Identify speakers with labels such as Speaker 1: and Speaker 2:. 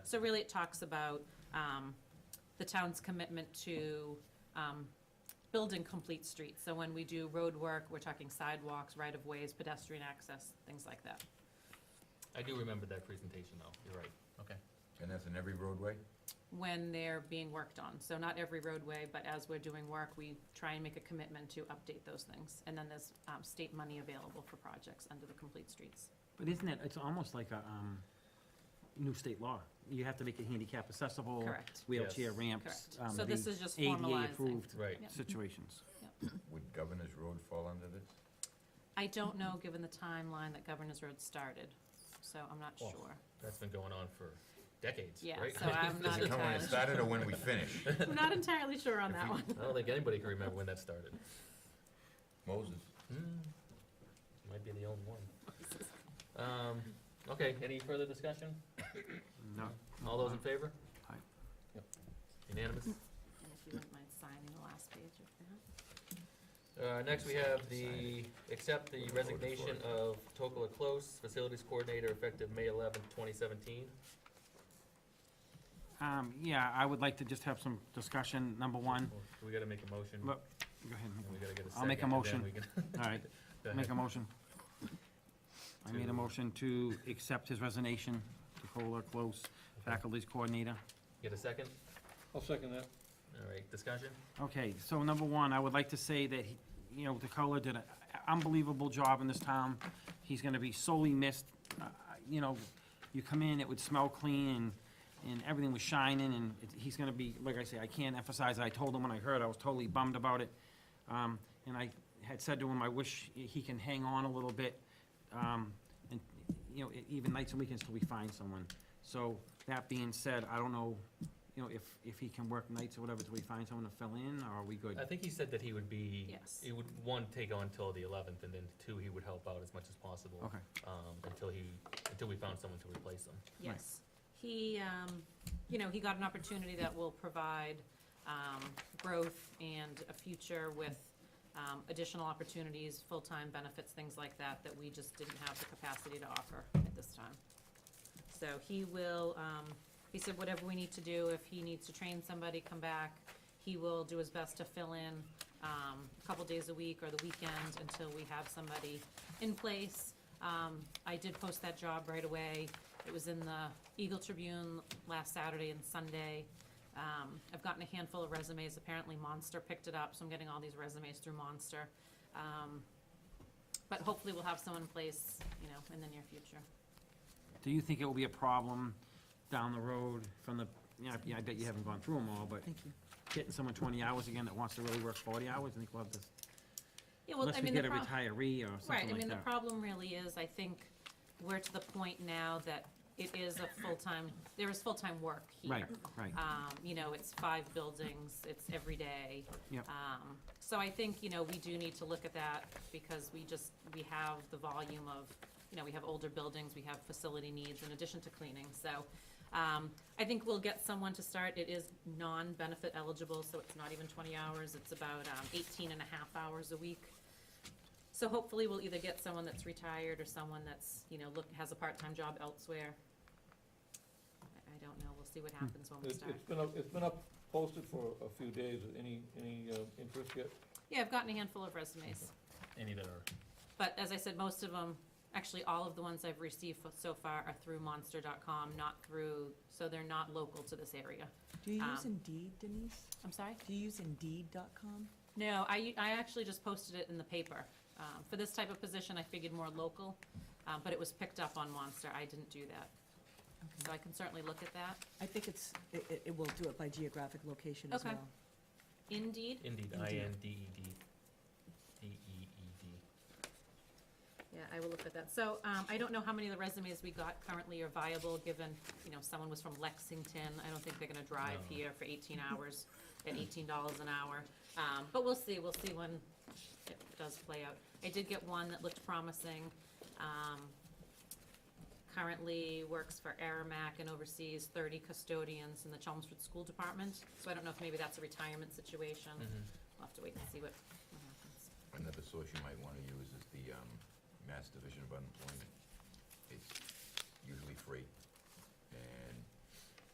Speaker 1: So really, it talks about um, the town's commitment to um, building complete streets. So when we do road work, we're talking sidewalks, right-of-ways, pedestrian access, things like that.
Speaker 2: I do remember that presentation, though, you're right.
Speaker 3: Okay.
Speaker 4: And that's in every roadway?
Speaker 1: when they're being worked on. So not every roadway, but as we're doing work, we try and make a commitment to update those things. And then there's um, state money available for projects under the complete streets.
Speaker 5: But isn't it, it's almost like a um, new state law. You have to make it handicap accessible.
Speaker 1: Correct.
Speaker 5: Wheelchair
Speaker 2: Yes.
Speaker 5: ramps.
Speaker 1: Correct.
Speaker 5: um,
Speaker 1: So this
Speaker 5: the
Speaker 1: is just formalizing.
Speaker 5: ADA-approved
Speaker 2: Right.
Speaker 1: Yep. Mm-hmm.
Speaker 5: situations.
Speaker 4: Would Governor's Road fall under this?
Speaker 1: I don't know, given the timeline that Governor's Road started, so I'm not
Speaker 2: Oh,
Speaker 1: sure.
Speaker 2: That's been going on for decades,
Speaker 1: Yeah,
Speaker 2: right?
Speaker 1: so I'm not
Speaker 4: Does it come when it
Speaker 1: entirely-
Speaker 4: started or when we finish?
Speaker 1: I'm not entirely sure on that one.
Speaker 2: I don't think anybody can remember when that started. Hmm,
Speaker 4: Moses,
Speaker 2: Might be the only one. Um, Okay, any further discussion?
Speaker 5: No.
Speaker 2: All those in favor?
Speaker 5: Aye.
Speaker 2: Yep. Unanimous?
Speaker 1: And if you wouldn't mind signing the last page of that.
Speaker 2: Uh, Next, we have the, accept the resignation of Tocola Close, Facilities Coordinator, effective May 11th, 2017.
Speaker 5: Um, Yeah, I would like to just have some discussion, number one.
Speaker 2: Well, We gotta make a motion,
Speaker 5: Look, go ahead.
Speaker 2: and we gotta get a second.
Speaker 5: I'll make a
Speaker 2: and then
Speaker 5: motion.
Speaker 2: we can-
Speaker 5: All right,
Speaker 2: Go ahead.
Speaker 5: make a motion. I made a motion to accept his resignation, to Cola Close Faculties Coordinator.
Speaker 2: Get a second?
Speaker 3: I'll second that.
Speaker 2: All right, discussion?
Speaker 5: Okay, so number one, I would like to say that, he- you know, DeCola did an unbelievable job in this town. He's gonna be sorely missed. Uh, You know, you come in, it would smell clean, and, and everything was shining, and it- he's gonna be, like I say, I can't emphasize, I told him when I heard, I was totally bummed about it. Um, And I had said to him, I wish he can hang on a little bit, um, and, you know, e, even nights and weekends till we find someone. So, that being said, I don't know, you know, if, if he can work nights or whatever till we find someone to fill in, or are we
Speaker 2: I
Speaker 5: good?
Speaker 2: think he said that he would be.
Speaker 1: Yes.
Speaker 2: He would, one, take on till the eleventh, and then two, he would help out as much as possible.
Speaker 5: Okay.
Speaker 2: Um, until he, until we found someone to replace him.
Speaker 1: Yes. He, um, you know, he got an opportunity that will provide um, growth and a future with um, additional opportunities, full-time benefits, things like that, that we just didn't have the capacity to offer at this time. So he will, um, he said whatever we need to do, if he needs to train somebody, come back. He will do his best to fill in um, a couple days a week or the weekend until we have somebody in place. Um, I did post that job right away. It was in the Eagle Tribune last Saturday and Sunday. Um, I've gotten a handful of resumes. Apparently Monster picked it up, so I'm getting all these resumes through Monster. Um, But hopefully we'll have someone in place, you know, in the near future.
Speaker 5: Do you think it will be a problem down the road from the, you know, yeah, I bet you haven't gone through them all, but getting someone twenty hours again that wants to really work forty hours, I think we'll have this,
Speaker 1: Yeah, well, I
Speaker 5: unless we
Speaker 1: mean, the
Speaker 5: get a
Speaker 1: prob-
Speaker 5: retiree or
Speaker 1: Right,
Speaker 5: something
Speaker 1: I
Speaker 5: like
Speaker 1: mean, the
Speaker 5: that.
Speaker 1: problem really is, I think, we're to the point now that it is a full-time, there is full-time work here.
Speaker 5: Right, right,
Speaker 1: Um, you know, it's five buildings, it's every day.
Speaker 5: yep,
Speaker 1: Um, so I think, you know, we do need to look at that because we just, we have the volume of, you know, we have older buildings, we have facility needs in addition to cleaning. So, um, I think we'll get someone to start. It is non-benefit eligible, so it's not even twenty hours. It's about, um, 18 and a half hours a week. So hopefully we'll either get someone that's retired or someone that's, you know, look, has a part-time job elsewhere. I, I don't know. We'll see what happens when we
Speaker 3: It's
Speaker 1: start.
Speaker 3: it's been up, it's been up posted for a few days. Any, any uh, interest yet?
Speaker 1: Yeah, I've gotten a handful of resumes.
Speaker 2: Any that are,
Speaker 1: But as I said, most of them, actually, all of the ones I've received fo- so far are through monster.com, not through, so they're not local to this area.
Speaker 6: Do you use
Speaker 1: Um,
Speaker 6: Indeed, Denise?
Speaker 1: I'm sorry?
Speaker 6: Do you use Indeed.com?
Speaker 1: No, I, I actually just posted it in the paper. Um, For this type of position, I figured more local, uh, but it was picked up on Monster. I didn't do that. So I can certainly look at that.
Speaker 6: I think it's, it, it- it will do it by geographic location as
Speaker 1: Okay.
Speaker 6: well.
Speaker 1: Indeed,
Speaker 2: indeed, I N D E D, D E E D.
Speaker 1: yeah, I will look at that. So um, I don't know how many of the resumes we got currently are viable, given, you know, someone was from Lexington. I don't think they're gonna drive
Speaker 2: No.
Speaker 1: here for eighteen hours at eighteen dollars an hour. Um, But we'll see, we'll see when it does play out. I did get one that looked promising. Um, Currently works for Aramac and oversees thirty custodians in the Chelmsford School Department. So I don't know if maybe that's a retirement
Speaker 2: Um,
Speaker 1: situation.
Speaker 2: Hmm. Mm-hmm.
Speaker 1: We'll have to wait and see what what happens.
Speaker 4: another source you might want to use is the um, Mass Division of Unemployment. It's usually free, and